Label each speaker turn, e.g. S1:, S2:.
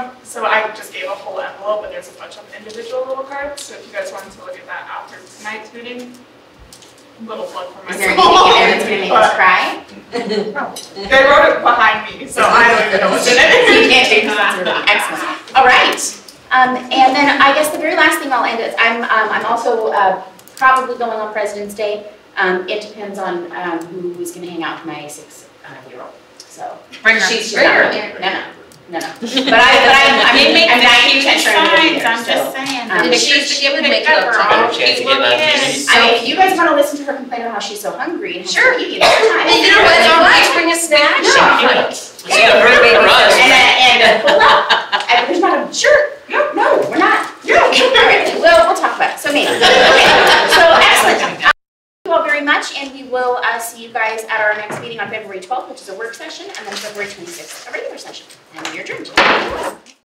S1: So I just gave a whole envelope, and there's a bunch of individual little cards, so if you guys wanted to look at that after tonight's meeting, little plug for
S2: Is there anything in
S1: myself.
S2: there that's gonna make us cry?
S1: But They wrote it behind me, so I don't even know what's in
S2: So you
S1: it.
S2: can't take that. Excellent. All right. Um, and then I guess the very last thing I'll end is, I'm, um, I'm also, uh, probably going on President's Day. Um, it depends on, um, who is gonna hang out with my six-year-old, so.
S3: Bring her.
S2: She's, she's not, no, no, no, no. But I, but I'm, I'm,
S1: They make
S2: I'm
S1: the
S2: nine,
S1: cutest
S2: ten trying
S1: signs,
S2: to
S1: I'm just saying.
S2: um,
S1: The
S2: she-
S1: pictures
S3: it would
S1: picked
S3: make it
S1: up
S3: look
S1: are all
S3: tough.
S4: She has to
S1: people
S4: get that
S1: in.
S4: piece.
S2: I mean, if you guys wanna listen to her complain about how she's so hungry and has
S3: Sure.
S2: to eat all the time.
S3: You know what, it's all right, bring a snack.
S2: No.
S4: It's gonna hurt for us.
S2: And, I- and, well, I, there's not a, sure, no, no, we're not. Yeah. Well, we'll talk about it, so maybe. Okay, So excellent. Um, Thank you all very much, and we will, uh, see you guys at our next meeting on February twelfth, which is a work session, and then February twenty-sixth.